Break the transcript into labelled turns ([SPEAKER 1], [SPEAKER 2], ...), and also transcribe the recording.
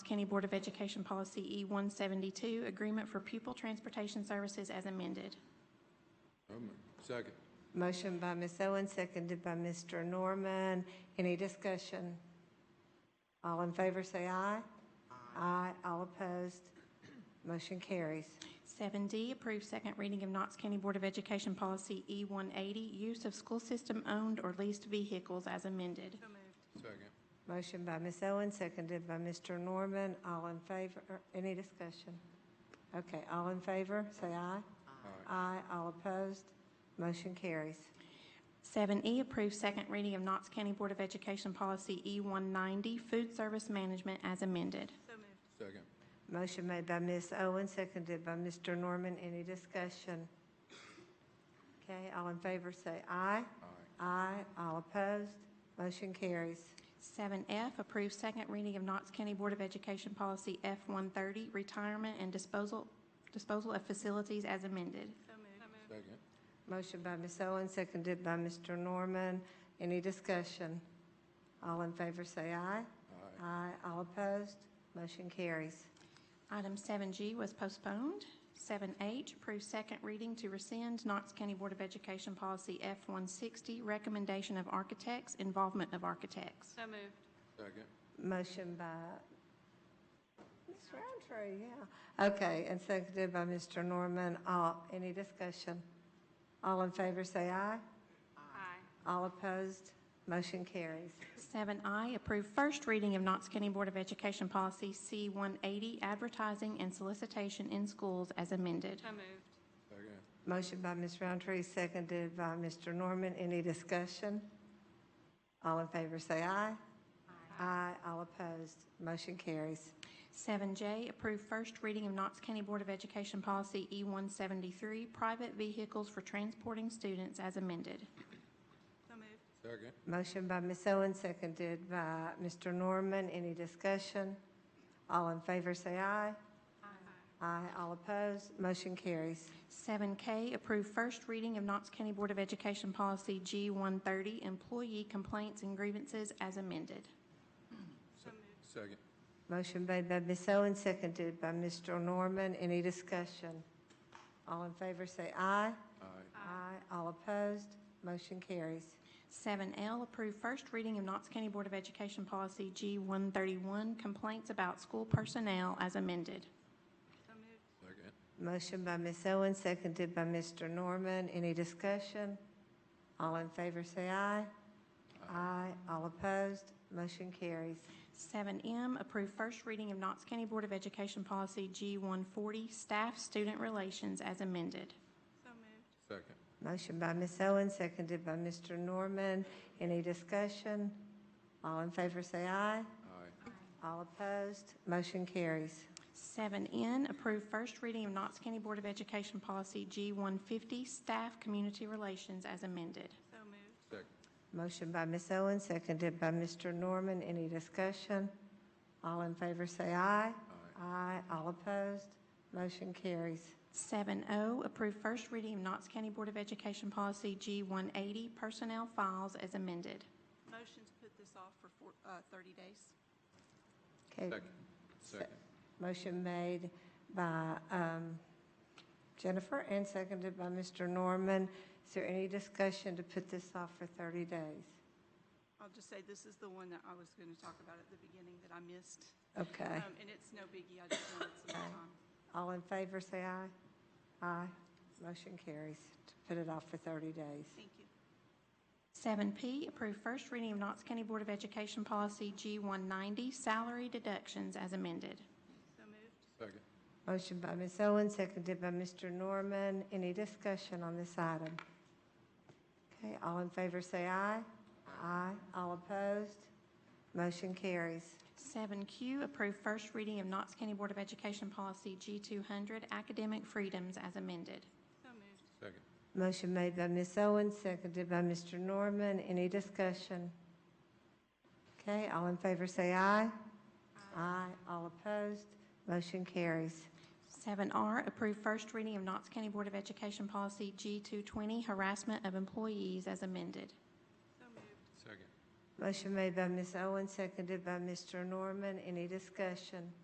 [SPEAKER 1] County Board of Education Policy E-172, Agreement for Pupil Transportation Services as amended.
[SPEAKER 2] So moved. Second.
[SPEAKER 3] Motion by Ms. Owen, seconded by Mr. Norman. Any discussion? All in favor, say aye. Aye. All opposed. Motion carries.
[SPEAKER 1] 7D, approve second reading of Knox County Board of Education Policy E-180, Use of School System-Owned or Leased Vehicles as amended.
[SPEAKER 2] Second.
[SPEAKER 3] Motion by Ms. Owen, seconded by Mr. Norman. All in favor, er, any discussion? Okay, all in favor, say
[SPEAKER 2] Aye.
[SPEAKER 3] aye. Aye. All opposed. Motion carries.
[SPEAKER 1] 7E, E, approve second reading of Knox County Board of Education Policy E-190, Food Service Management as amended.
[SPEAKER 2] Second.
[SPEAKER 3] Motion made by Ms. Owen, seconded by Mr. Norman. Any discussion? Okay, all in favor, say aye.
[SPEAKER 2] Aye.
[SPEAKER 3] Aye. All opposed. Motion carries.
[SPEAKER 1] 7F, approve second reading of Knox County Board of Education Policy F-130, Retirement and Disposal, Disposal of Facilities as amended.
[SPEAKER 2] Second.
[SPEAKER 3] Motion by Ms. Owen, seconded by Mr. Norman. Any discussion? All in favor, say
[SPEAKER 2] Aye.
[SPEAKER 3] aye. Aye. All opposed. Motion carries.
[SPEAKER 1] Item 7G was postponed. 7H, approve second reading to rescind Knox County Board of Education Policy F-160, Recommendation of Architects, Involvement of Architects.
[SPEAKER 4] So moved.
[SPEAKER 2] Second.
[SPEAKER 3] Motion by Ms. Roundtree, yeah. Okay, and seconded by Mr. Norman. All, any discussion? All in favor, say aye.
[SPEAKER 4] Aye.
[SPEAKER 3] All opposed. Motion carries.
[SPEAKER 1] 7I, approve first reading of Knox County Board of Education Policy C-180, Advertising and Solicitation in Schools as amended.
[SPEAKER 4] So moved.
[SPEAKER 2] Second.
[SPEAKER 3] Motion by Ms. Roundtree, seconded by Mr. Norman. Any discussion? All in favor, say aye. Aye. All opposed. Motion carries.
[SPEAKER 1] 7J, approve first reading of Knox County Board of Education Policy E-173, Private Vehicles for Transporting Students as amended.
[SPEAKER 4] So moved.
[SPEAKER 2] Second.
[SPEAKER 3] Motion by Ms. Owen, seconded by Mr. Norman. Any discussion? All in favor, say aye. Aye. All opposed. Motion carries.
[SPEAKER 1] 7K, approve first reading of Knox County Board of Education Policy G-130, Employee Complaints and Grievances as amended.
[SPEAKER 4] So moved.
[SPEAKER 2] Second.
[SPEAKER 3] Motion made by Ms. Owen, seconded by Mr. Norman. Any discussion? All in favor, say aye.
[SPEAKER 2] Aye.
[SPEAKER 3] Aye. All opposed. Motion carries.
[SPEAKER 1] 7L, approve first reading of Knox County Board of Education Policy G-131, Complaints about School Personnel as amended.
[SPEAKER 4] So moved.
[SPEAKER 2] Second.
[SPEAKER 3] Motion by Ms. Owen, seconded by Mr. Norman. Any discussion? All in favor, say aye. Aye. All opposed. Motion carries.
[SPEAKER 1] 7M, approve first reading of Knox County Board of Education Policy G-140, Staff-Student Relations as amended.
[SPEAKER 4] So moved.
[SPEAKER 2] Second.
[SPEAKER 3] Motion by Ms. Owen, seconded by Mr. Norman. Any discussion? All in favor, say aye.
[SPEAKER 2] Aye.
[SPEAKER 3] All opposed. Motion carries.
[SPEAKER 1] 7N, approve first reading of Knox County Board of Education Policy G-150, Staff Community Relations as amended.
[SPEAKER 4] So moved.
[SPEAKER 2] Second.
[SPEAKER 3] Motion by Ms. Owen, seconded by Mr. Norman. Any discussion? All in favor, say
[SPEAKER 2] Aye.
[SPEAKER 3] aye. Aye. All opposed. Motion carries.
[SPEAKER 1] 7O, oh, approve first reading of Knox County Board of Education Policy G-180, Personnel Files as amended.
[SPEAKER 4] Motion to put this off for four, uh, thirty days.
[SPEAKER 3] Okay,
[SPEAKER 2] Second. Second.
[SPEAKER 3] motion made by um, Jennifer and seconded by Mr. Norman. Is there any discussion to put this off for 30 days?
[SPEAKER 4] I'll just say this is the one that I was going to talk about at the beginning that I missed.
[SPEAKER 3] Okay.
[SPEAKER 4] Um, And it's no biggie. I just wanted some more
[SPEAKER 3] Aye.
[SPEAKER 4] time.
[SPEAKER 3] All in favor, say aye. Aye. Motion carries to put it off for 30 days.
[SPEAKER 4] Thank you.
[SPEAKER 1] 7P, approve first reading of Knox County Board of Education Policy G-190, Salary Deductions as amended.
[SPEAKER 4] So moved.
[SPEAKER 2] Second.
[SPEAKER 3] Motion by Ms. Owen, seconded by Mr. Norman. Any discussion on this item? Okay, all in favor, say aye. Aye. All opposed? Motion carries.
[SPEAKER 1] 7Q, approve first reading of Knox County Board of Education Policy G-200, Academic Freedoms as amended.
[SPEAKER 4] So moved.
[SPEAKER 2] Second.
[SPEAKER 3] Motion made by Ms. Owen, seconded by Mr. Norman. Any discussion? Okay, all in favor, say aye. Aye. All opposed? Motion carries.
[SPEAKER 1] 7R, approve first reading of Knox County Board of Education Policy G-220, Harassment of Employees as amended.
[SPEAKER 4] So moved.
[SPEAKER 2] Second.
[SPEAKER 3] Motion made by Ms. Owen, seconded by Mr. Norman. Any discussion?